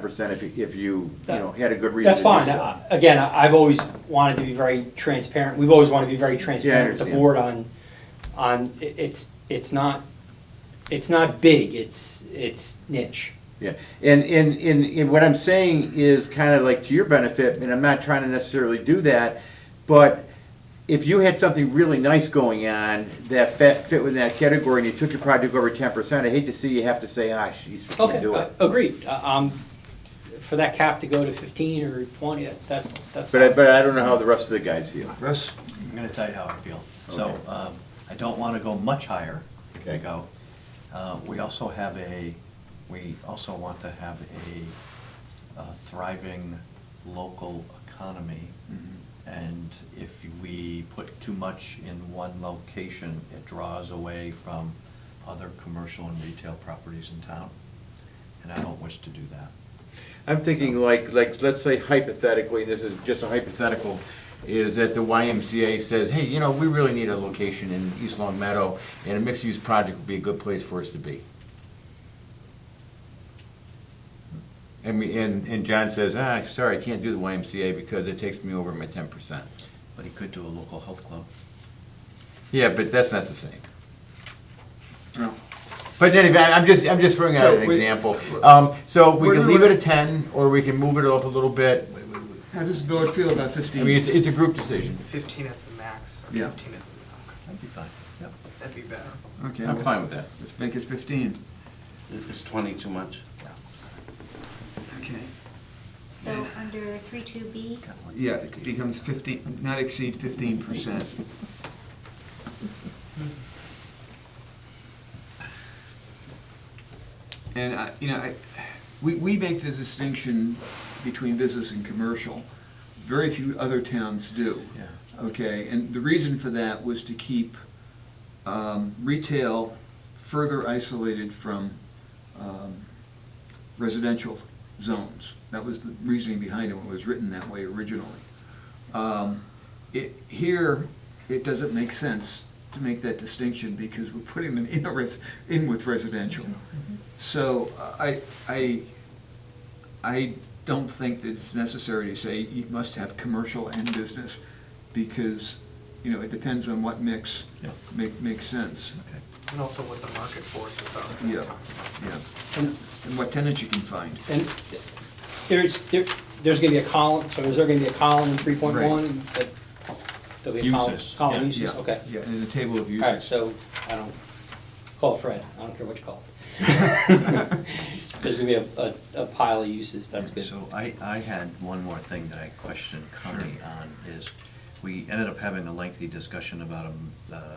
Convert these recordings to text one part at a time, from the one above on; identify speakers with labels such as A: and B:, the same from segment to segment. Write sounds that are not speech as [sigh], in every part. A: percent if you, if you, you know,
B: That-
A: had a good reason.
B: That's
A: to do
B: fine.
A: so.
B: Uh, Again, I- I've always wanted to be very transparent. We've always wanted to be very transparent with the
A: understand.
B: board on, on, i- it's, it's not, it's not big, it's, it's niche.
A: Yeah, and, and, and, and what I'm saying is kind of like to your benefit, and I'm not trying to necessarily do that, but if you had something really nice going on that fit, fit within that category and you took your project over ten percent, I hate to see you have to say, ah, she's, we can't
B: Okay,
A: do
B: uh,
A: it.
B: agreed. Uh, Um, for that cap to go to fifteen or twenty, that, that's.
A: But I, but I don't know how the rest of the guys feel.
C: Russ? I'm gonna tell you how I feel. So,
A: Okay.
C: um, I don't wanna go much higher if we
A: Okay.
C: go. Uh, we also have a, we also want to have a uh, thriving local economy.
A: Mm-hmm.
C: And if we put too much in one location, it draws away from other commercial and retail properties in town. And I don't wish to do that.
A: I'm thinking like, like, let's say hypothetically, this is just a hypothetical, is that the YMCA says, hey, you know, we really need a location in East Long Meadow, and a mixed-use project would be a good place for us to be. And we, and, and John says, ah, sorry, I can't do the YMCA because it takes me over my ten percent.
C: But he could do a local health club.
A: Yeah, but that's not the same.
C: No.
A: But in any event, I'm just, I'm just throwing out
D: So
A: an
D: we-
A: example. Um, so we
D: We're-
A: can leave it
D: we're-
A: at ten, or we can move it up a little bit.
D: How does the board feel about
A: I mean, it's,
D: fifteen?
A: it's a group decision.
E: Fifteen is the max, or
D: Yeah.
E: fifteen is the,
C: That'd be fine, yep.
E: okay, that'd be better.
D: Okay,
A: I'm
D: well,
A: fine with that.
D: let's make it fifteen.
F: Is 20 too much?
D: Okay.
G: So under three two B,
D: Yeah, it becomes fifteen, not exceed fifteen percent. And I, you know, I, we, we make the distinction between business and commercial. Very few other towns do.
C: Yeah.
D: Okay, and the reason for that was to keep um, retail further isolated from um, residential zones. That was the reasoning behind it, when it was written that way originally. Um, It, here, it doesn't make sense to make that distinction because we're putting them in a res, in with residential. So I, I, I don't think that it's necessary to say you must have commercial and business because, you know, it depends on what mix
C: Yeah.
D: make, makes sense,
C: Okay.
E: And also what the market forces are at
D: Yeah.
E: that time.
D: yeah.
B: And-
D: And what tenants you can find.
B: And there's, there, there's gonna be a column, so is there gonna be a column in three point one? There'll be a column,
C: Uses.
B: column
C: Yeah,
B: uses,
D: Yeah,
B: okay.
D: Yeah, and a table of
B: All right,
D: uses.
B: so, I don't, call Fred, I don't care what you call it.
D: [laughs]
B: There's gonna be a, a- a pile of uses, that's good.
C: So I, I had one more thing that I questioned Connie on, is we ended up having a lengthy discussion about, um, uh,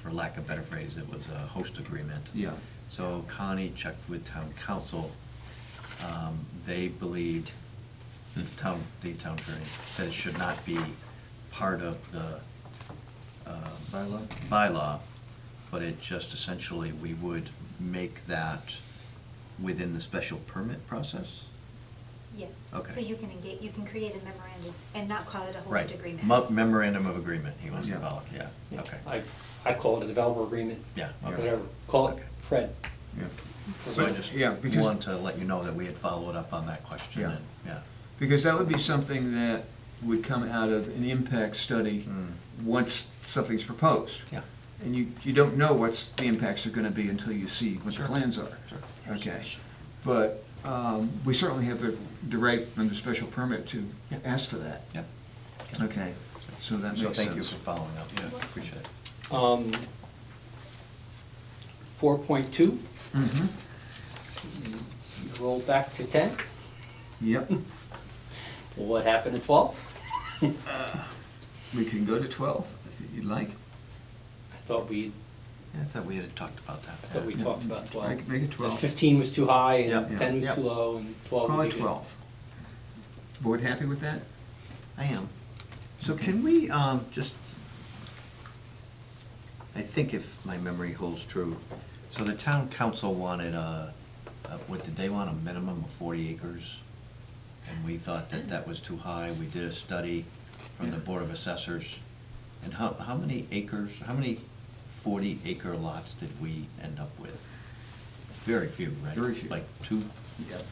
C: for lack of a better phrase, it was a host agreement.
D: Yeah.
C: So Connie checked with town council. Um, They believed, hmm, town, the town attorney, that it should not be part of the uh,
D: Bylaw?
C: bylaw, but it just essentially, we would make that within the special permit process?
G: yes.
C: Okay.
G: So you can engage, you can create a memorandum and not call it a host
C: Right,
G: agreement.
C: Mo- memorandum of agreement, he wants to
D: Yeah.
C: call it, yeah, okay.
B: I, I call it a developer agreement.
C: Yeah, okay.
B: Whatever, call it
C: Okay.
B: Fred.
D: Yeah.
C: So I just
D: Yeah, because-
C: wanted to let you know that we had followed up on that question,
D: Yeah.
C: and, yeah.
D: Because that would be something that would come out of an impact study
C: Mm.
D: once something's proposed.
C: Yeah.
D: And you, you don't know what's, the impacts are gonna be until you see what the
C: Sure.
D: plans are.
C: Sure.
D: Okay. But um, we certainly have the, the right under special permit to
C: Yeah.
D: ask for that.
C: Yeah.
D: Okay, so that makes
C: So
D: sense.
C: thank you for following up, yeah, appreciate it.
B: Um, four point two,
D: Mhm.
B: roll back to ten,
D: Yep,
B: what happened at twelve?
D: [laughs] we can go to twelve if you'd like.
B: I thought we,
C: Yeah, I thought we had talked about that.
B: I thought we
C: yeah.
B: talked about twelve.
D: Make- make it
B: That
D: 12.
B: Fifteen was too high,
C: Yeah,
B: and
C: yeah,
B: ten was
C: yeah.
B: too low, and twelve
D: Call
B: would be
D: it
B: good.
D: twelve. Board happy with that?
C: I am. So can we, um, just, I think if my memory holds true, so the town council wanted a, a- what, did they want a minimum of forty acres? And we thought that that was too high, we did a study from the Board of Assessors. And how, how many acres, how many forty acre lots did we end up with? Very few, right?
D: Very few.
C: Like two?
D: Yep.